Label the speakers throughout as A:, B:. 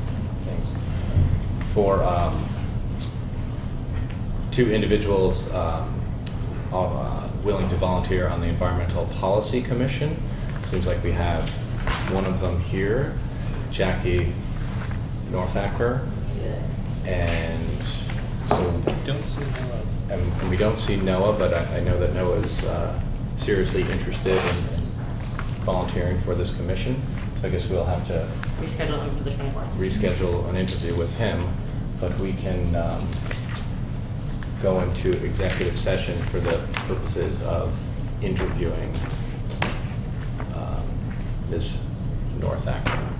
A: applications for um, two individuals um, uh, willing to volunteer on the Environmental Policy Commission. Seems like we have one of them here, Jackie Northacker, and so
B: Don't see how.
A: and we don't see Noah, but I, I know that Noah is uh, seriously interested in volunteering for this commission. So I guess we'll have to
C: Reschedule them for the 24th.
A: reschedule an interview with him, but we can um, go into executive session for the purposes of interviewing um, Ms. Northacker.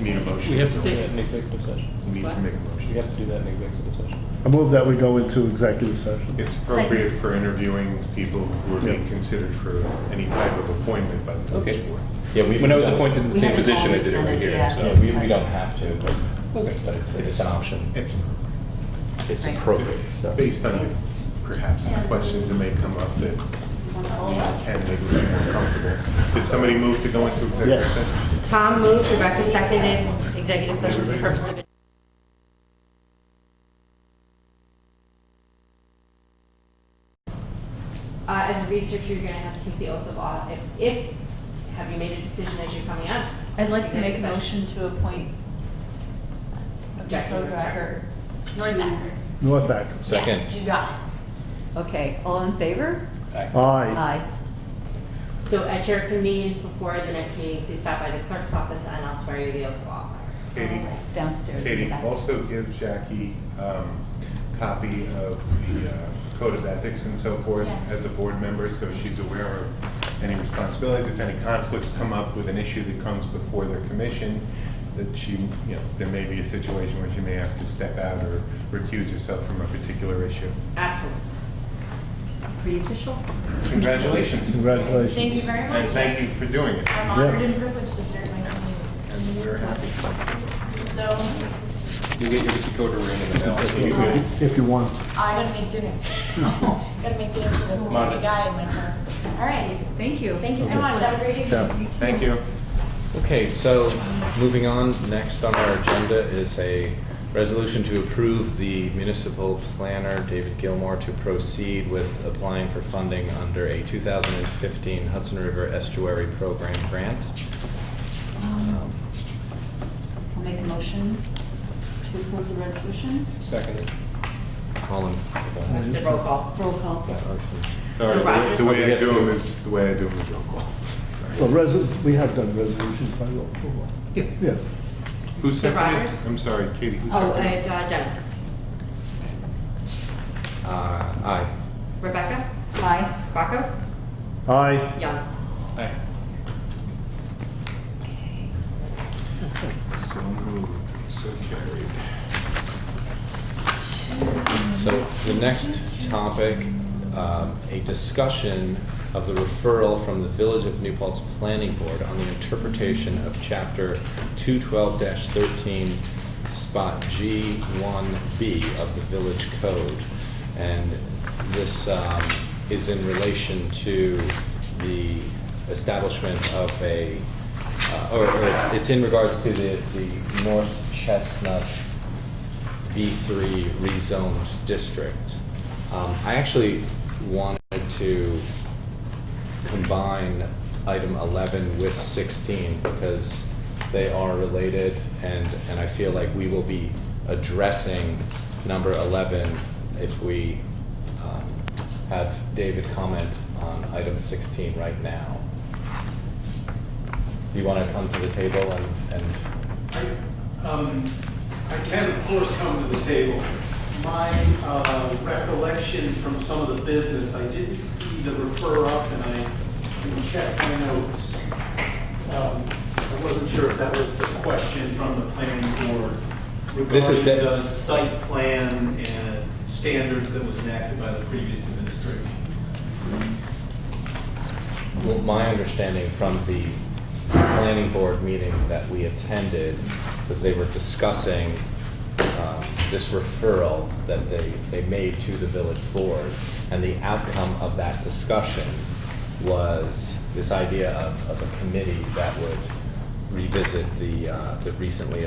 D: Need a motion?
B: We have to do that in executive session.
D: We Need to make a
B: We
D: motion.
B: have to do that in executive session.
E: I move that we go into executive session.
D: It's appropriate for interviewing people who are being considered for any type of appointment by the village
B: Okay.
D: board.
A: Yeah, we
B: When I was appointed in the
C: We
B: same
C: haven't
B: position, I
C: always
B: did it
C: done
B: right
C: it,
B: here,
C: yeah.
A: Yeah,
B: so.
A: we, we don't have to, but,
B: Okay.
A: but it's, it's an option.
D: It's
A: It's
C: Right.
A: appropriate, so.
D: based on perhaps the questions that may come up that can make me more comfortable. Did somebody move to go into executive
E: Yes.
D: session?
C: Tom moved, Rebecca seconded, executive session for the purpose of
F: Uh, as a researcher, you're gonna have to take the oath of office. If, have you made a decision as you're coming up?
G: I'd like to make a
F: Executive session.
G: motion to appoint
F: Jackie
G: Jessica Becker.
C: Northacker.
E: North Act.
A: Second.
G: You got it. Okay, all in favor?
E: Aye.
G: Aye.
F: So at your convenience before the next meeting, please stop by the clerk's office and I'll swear you the oath of office.
D: Katie?
G: It's downstairs. in the
D: Katie,
G: back.
D: also give Jackie um, copy of the uh, code of ethics and so forth
G: Yes.
D: as a board member, so she's aware of any responsibilities. If any conflicts come up with an issue that comes before their commission, that she, you know, there may be a situation where she may have to step out or recuse herself from a particular issue.
F: Absolutely.
G: Pretty official?
D: Congratulations,
E: Congratulations.
H: Thank you very
D: and
H: much.
D: thank you for doing it.
H: I'm honored and privileged to serve my community.
D: And we're happy.
H: So
B: You'll get your decoder ring in the mail.
E: If if you want.
H: I gotta make dinner. Gotta make dinner for the
B: Monday.
H: the guy in my town. All right.
G: Thank you.
H: Thank you so much. Have a great evening.
E: Ciao.
D: Thank you.
A: Okay, so moving on, next on our agenda is a resolution to approve the municipal planner, David Gilmore, to proceed with applying for funding under a 2015 Hudson River Estuary Program grant.
G: Um, I'll make a motion to approve the resolution.
B: Second.
A: All in.
F: It's a roll call.
G: Roll call.
A: Yeah, let's-
D: All
F: So
D: right,
F: Roger-
D: The
A: We
D: way I
A: have
D: do
A: to-
D: them is, the way I do them is roll call.
E: Well, resol, we have done resolutions by roll call. Yeah.
D: Who
F: So
D: seconded?
F: Rogers?
D: I'm sorry, Katie, who
F: Oh, and
D: seconded?
F: uh, Dennis.
A: Uh, Aye.
F: Rebecca?
G: Aye.
F: Rocco?
E: Aye.
F: Young?
B: Aye.
D: So moved, so carried.
A: So the next topic, um, a discussion of the referral from the Village of New Paltz Planning Board on the interpretation of Chapter 212-13, Spot G1B of the Village Code. And this um, is in relation to the establishment of a, uh, or or it's- it's in regards to the the North Chestnut B3 rezoned district. Um, I actually wanted to combine item 11 with 16 because they are related and, and I feel like we will be addressing number 11 if we um, have David comment on item 16 right now. Do you want to come to the table and, and
I: I um, I can, of course, come to the table. My uh, recollection from some of the business, I didn't see the refer up, and I didn't check my notes. Um, I wasn't sure if that was the question from the planning board
A: This
I: regarding
A: is the-
I: the site plan and standards that was enacted by the previous administration.
A: Well, My understanding from the planning board meeting that we attended was they were discussing um, this referral that they, they made to the village board. And the outcome of that discussion was this idea of, of a committee that would revisit the, uh, the recently